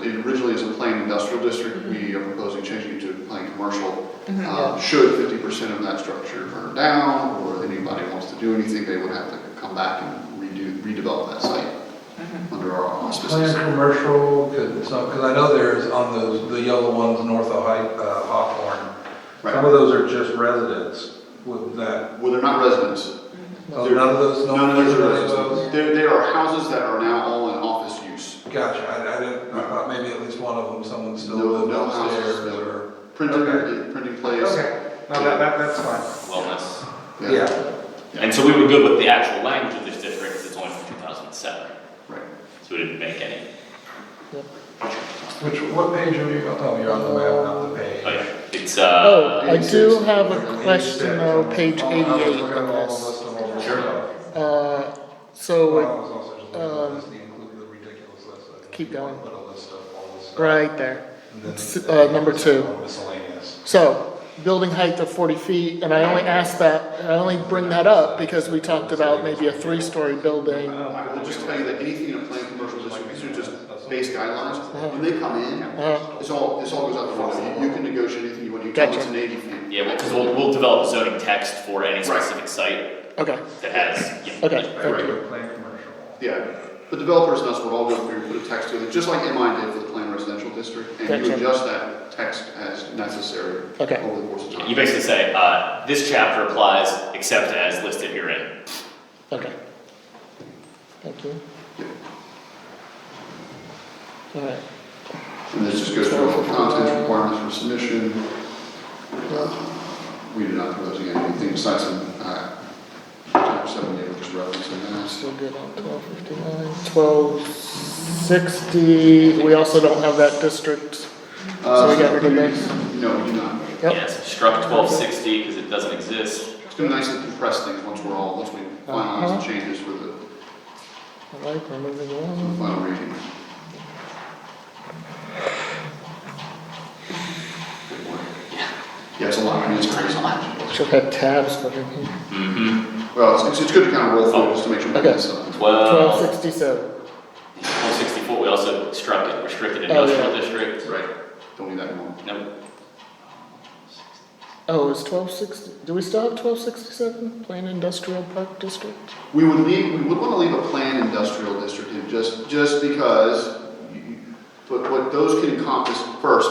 really is a plain industrial district, we are proposing changing it to plain commercial. Mhm, Uh, yeah. Should fifty percent of that structure burn down, or anybody wants to do anything, they would have to come back and redo, redevelop that site under our auspices. Plan commercial, because I know there's on those, the yellow ones north of Hi- uh, Hawthorne. Some of Right, those are just residents with that. well, they're not residents, Oh, They're- None of those, no none of none those of are those. residents, there, there are houses that are now all in office use. Gotcha, I, I didn't, I thought maybe at least one of them, someone still No, lived no houses, upstairs no. or. Printing, Okay. printing place, Okay, no, that, that, that's fine. wellness. yeah, Yeah, And so we were good with the actual language of this district, because it's only from two thousand and seven, right. so we didn't make any. which, what page are you, oh, you're on the map, not the page. Oh, yeah, it's, Oh, uh, I do have a question though, page Oh, I was eighty-eight looking at on all the this. list of all the Sure. stuff. Uh, Well, I so, um, was also just looking at the list, the include the ridiculous list. I keep going. put a list of all the stuff. right there. And then- S- uh, number two. Miscellaneous. So, building height of forty feet, and I only asked that, I only bring that up because we talked about maybe a three-story building. I will Uh, just tell you that anything in a planned commercial district, these are just base guidelines, when they come in, Uh-huh. it's all, this all goes out the window, you you can negotiate anything you want, you can, it's an eighty feet. yeah, well, because we'll, we'll develop zoning text for any specific site Okay, that has, yeah. Okay. yeah. Right, right. Regular plan commercial. Yeah, the developers and us would all go through, put a text together, just like MI did for the planned residential district, and you Gotcha. adjust that text as necessary Okay. over the course of You time. basically say, uh, this chapter applies except as listed herein. okay. Thank you. Alright, And this just goes through all the contents, requirements for submission. Uh-huh. We do not propose anything besides some, uh, chapter seven, which is referencing that. still good on twelve fifty-nine, twelve sixty, we also don't have that district. Uh, So we got rid of that? No, we do not. Yep. Yes, struck twelve sixty, because it doesn't exist. It's gonna be nice to compress things once we're all, once we Uh-huh. finalize the changes for the All right, we're moving for the along. final reading. Good work. Yeah, it's a lot, I mean, it's crazy. Should have had tabs for me. Mm-hmm. Well, it's- it's, it's good to kind of roll through just to make sure we Okay. get something. Twelve Twelve, sixty-seven, twelve sixty-four, we also struck it, restricted Oh, yeah. industrial district. Right, don't need that anymore. Nope. oh, is twelve sixty, do we still have twelve sixty-seven, Plain Industrial Park District? We would leave, we would wanna leave a planned industrial district in just, just because, you- but what those can encompass first,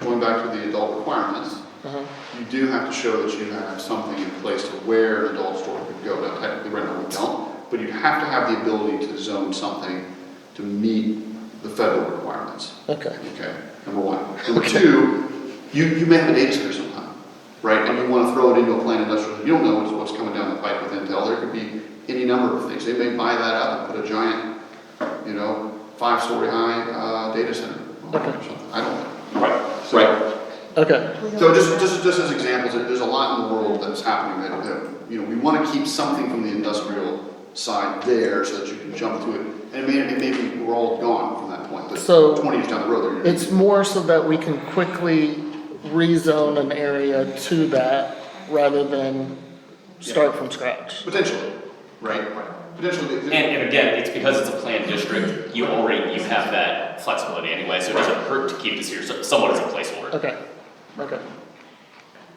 going back to the adult requirements, Uh-huh, you do have to show that you have something in place to where an adult store could go. Now technically, right now we don't, but you have to have the ability to zone something to meet the federal requirements, okay, okay? Number one. Number two, you, you may have a data center sometime, right? And you wanna throw it into a planned industrial, you don't know what's, what's coming down the pipe with Intel. There could be any number of things. They may buy that up and put a giant, you know, five-story high, uh, data center on it or something. I don't know. Right, So- right. okay, so just, just, just as examples, there- there's a lot in the world that's happening that, that, you know, we want to keep something from the industrial side there so that you can jump to it. And it may, it may be, we're all gone from that point, but So- twenty years down the road, they're. it's more so that we can quickly rezone an area to that rather than start from scratch. Potentially, right? Potentially. they- they- And, and again, it's because it's a planned district, you already, you have that flexibility anyway, so it doesn't hurt to keep this here, so- somewhat as a placeholder. Okay, okay.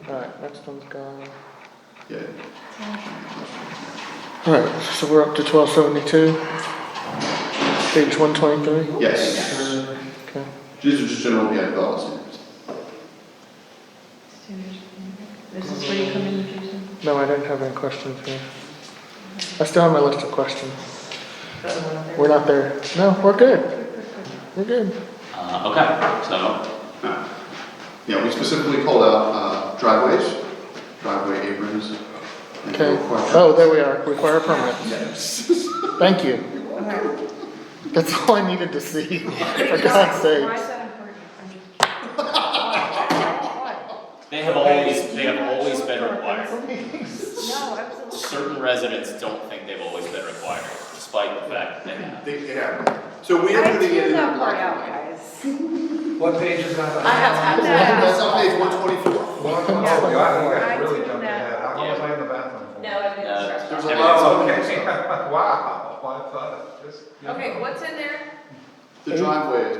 Alright, next one's gone. Yeah, Alright, so we're up to twelve seventy-two. Page one twenty-three, yes, okay. these are just general, yeah, development standards. This is where you come in, Jason? No, I don't have any questions here. I still have my list of questions. We're not there. No, we're good. We're good. Uh, okay, so, Yeah, we specifically called out uh, driveways, driveway aprons. and Okay. requirements. Oh, there we are. Require a permit. Yes. Thank you. That's all I needed to see, for God's Why sake. is that important? I mean, they have always, they have always been required. No, absolutely. Certain residents don't think they've always been required, despite the fact that they have. They, they have. So we are I putting it tuned in. that black part and out, white. guys. What page is that? I That's have had that. on page one twenty-four. One, oh, God, you guys I really do jumped that. ahead. How long was I in the bathroom for? I Uh, There's a everything's- lot Oh, okay, wow, I thought, it just. you know. Okay, what's in there? The driveway is